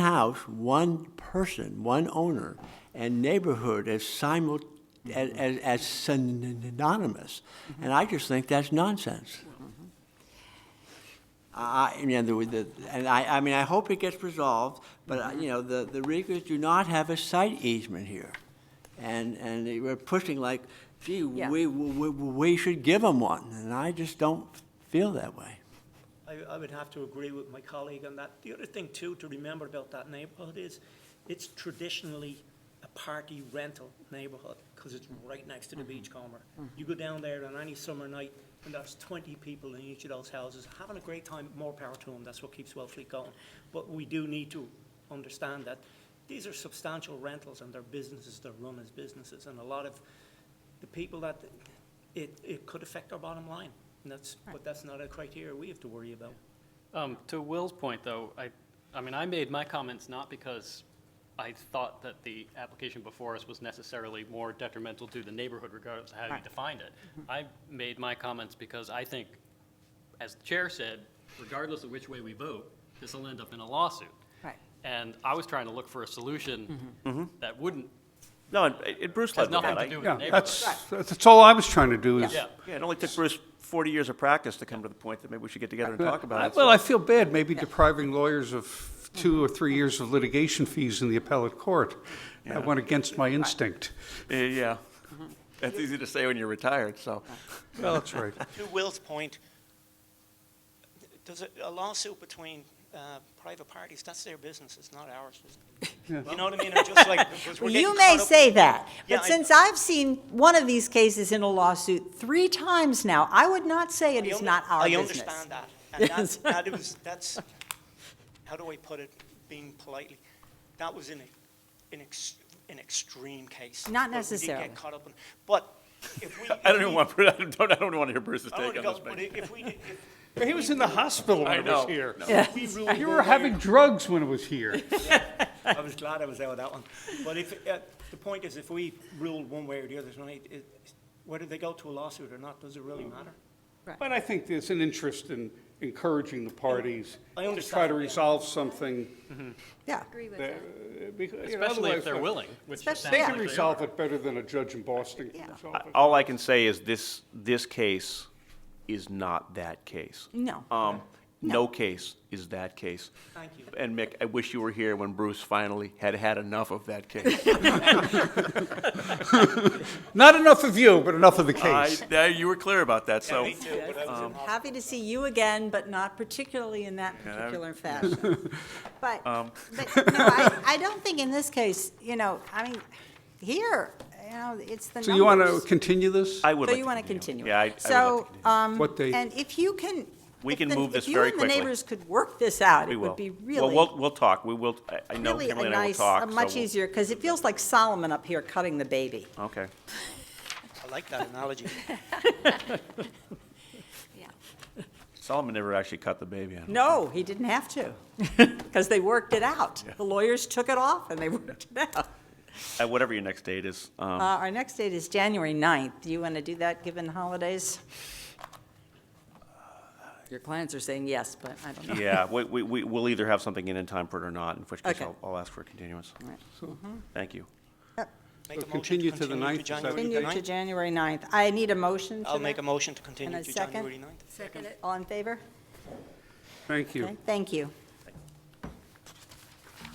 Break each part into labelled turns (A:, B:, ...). A: house, one person, one owner, and neighborhood as simul, as, as- as synonymous. And I just think that's nonsense. I, I- you know, the, the, and I, I mean, I hope it gets resolved, but, uh, you know, the, the Regans do not have a site easement here. And, and they we're pushing like, gee,
B: Yeah.
A: we, we, we should give them one, and I just don't feel that way.
C: I, I would have to agree with my colleague on that. The other thing too to remember about that neighborhood is it's traditionally a party rental neighborhood because it's right next to the beachcomber. You go down there on any summer night and there's twenty people in each of those houses having a great time, more power to them, that's what keeps Wellfleet going. But we do need to understand that these are substantial rentals and they're businesses, they're run as businesses. And a lot of the people that, it, it could affect our bottom line. And that's, but that's not a criteria we have to worry about.
D: Um, to Will's point, though, I, I mean, I made my comments not because I thought that the application before us was necessarily more detrimental to the neighborhood regardless of how you
B: Right. Mm-hmm.
D: defined it. I made my comments because I think, as the chair said, regardless of which way we vote, this will end up in a lawsuit.
B: Right. Mm-hmm.
D: And I was trying to look for a solution that wouldn't,
E: No, and- uh, and Bruce
D: has
E: led with
D: nothing
E: that.
D: to
E: I-
D: do with the
F: Yeah,
D: neighborhood.
F: that's, that's that's all I was trying to do is.
D: Yeah.
E: Yeah, it only took Bruce 40 years of practice to come to the point that maybe we should get together and talk
F: I-
E: about it.
F: Well, I feel bad maybe depriving lawyers of two or three years of litigation fees in the appellate court. That went against my instinct.
E: Uh, Yeah.
D: Mm-hmm.
E: That's easy to say when you're retired, so.
F: Well, that's right.
C: To Will's point, does a- a lawsuit between uh, private parties, that's their business, it's not ours. You know what I mean? I'm just like, we're
B: Well,
C: getting
B: you may
C: caught up-
B: say that,
C: Yeah,
B: but
C: I-
B: since I've seen one of these cases in a lawsuit three times now, I would not say it
C: I
B: is
C: under-
B: not our
C: I
B: business.
C: understand that. And that's, that was, that's, how do I put it, being politely, that was in a, in ex, an extreme case.
B: Not
C: but we did get
B: necessarily.
C: caught up in- But if we.
E: I don't
C: if
E: even
C: we-
E: want, I don't, I don't want to hear Bruce's
C: I don't
E: take on
C: wanna
E: this.
C: go, but
E: mate.
C: if we, if,
F: He was in the hospital
E: I
F: when I
E: know.
F: was here.
B: Yes.
F: You were having drugs when I was here.
C: I was glad I was out of that one. But if, uh, the point is, if we ruled one way or the other tonight, it, whether they go to a lawsuit or not, does it really
B: Mm.
C: matter?
F: But I think there's an interest in encouraging the parties
C: I
F: to
C: understand,
F: try to
C: yeah.
F: resolve something.
B: Yeah,
F: uh, because, you know,
D: Especially
F: otherwise
D: if they're
F: the-
D: willing, which it
B: Especially-
D: sounds
F: They
D: like
F: can
D: they
F: resolve
D: are.
F: it better than a judge in Boston can
B: Yeah.
F: resolve it.
E: All I can say is this, this case is not that case.
B: no.
E: Um, no case is that case.
C: Thank you.
E: And Mick, I wish you were here when Bruce finally had had enough of that case.
F: Not enough of you, but enough of the
E: I,
F: case.
E: I- you were clear about that, so.
C: Me too, but I was in-
B: Happy to see you again, but not particularly in that particular fashion. But,
E: Um.
B: but, no, I, I don't think in this case, you know, I mean, here, you know, it's the numbers.
F: So you want to continue this?
E: I would
B: So
E: like
B: you want to continue. it.
E: Yeah, I- I would like to
B: So,
E: continue.
B: um,
F: What date?
B: and if you can.
E: We
B: if
E: can
B: the-
E: move this
B: If
E: very
B: you and the
E: quickly.
B: neighbors could work this out,
E: We
B: it
E: will.
B: would be
E: Well, we'll,
B: really,
E: we'll talk. We will, I- I know
B: really a
E: Kimberly and I will
B: nice,
E: talk.
B: a
E: so
B: much
E: we'll-
B: easier, because it feels like Solomon up here cutting the baby.
E: Okay.
C: I like that analogy.
E: Solomon never actually cut the baby on.
B: No, he didn't have to, because they worked it out. The lawyers took it off and they worked it out.
E: Uh, Whatever your next date is.
B: Uh,
E: um,
B: Our next date is January 9th. Do you want to do that, given holidays? Your clients are saying yes, but I don't know.
E: Yeah, we, we, we- we'll either have something in in time for it or not, in which case
B: Okay.
E: I'll, I'll ask for a continuance. Thank you.
C: Make a
F: So
C: motion
F: continue to the ninth, is that-
C: January
B: Continue
C: ninth.
B: to January 9th. I need a motion to
C: I'll make
B: that.
C: a motion to
B: And
C: continue
B: a
C: to
B: second?
C: January ninth.
B: Second it. All in favor?
F: Thank you.
B: Okay, thank you.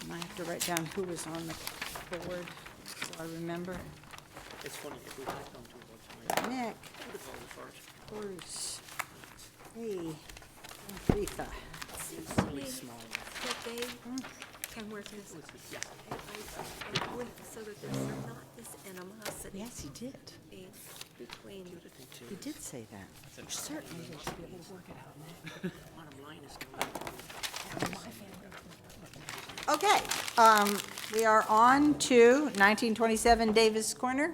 B: And I have to write down who was on the board, so I remember.
C: It's funny, if we had come to a vote tonight,
B: Nick,
C: I would have voted for it.
B: Bruce, me, Rita.
G: Seems to me that they can work this, I- I- with- so that there's not this animosity
B: Yes, he did.
G: being between
B: He did say that. Certainly.
C: Bottom line is,
B: Okay, um, we are on to 1927 Davis Corner.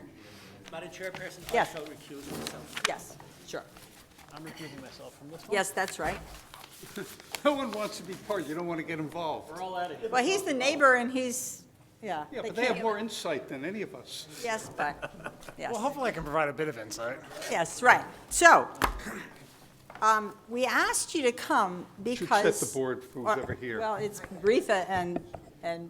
C: Madam Chairperson, I
B: Yes.
C: shall recuse myself.
B: Yes, sure.
C: I'm recusing myself from this
B: Yes, that's right.
F: No one wants to be part, you don't want to get involved.
C: We're all out of here.
B: Well, he's the neighbor and he's, yeah.
F: Yeah, but they have
B: can't-
F: more insight than any of us.
B: Yes, but, yes.
H: Well, hopefully I can provide a bit of insight.
B: Yes, right. So, um, we asked you to come
F: set
B: because.
F: the board for
B: or-
F: whoever here.
B: Well, it's Rita and and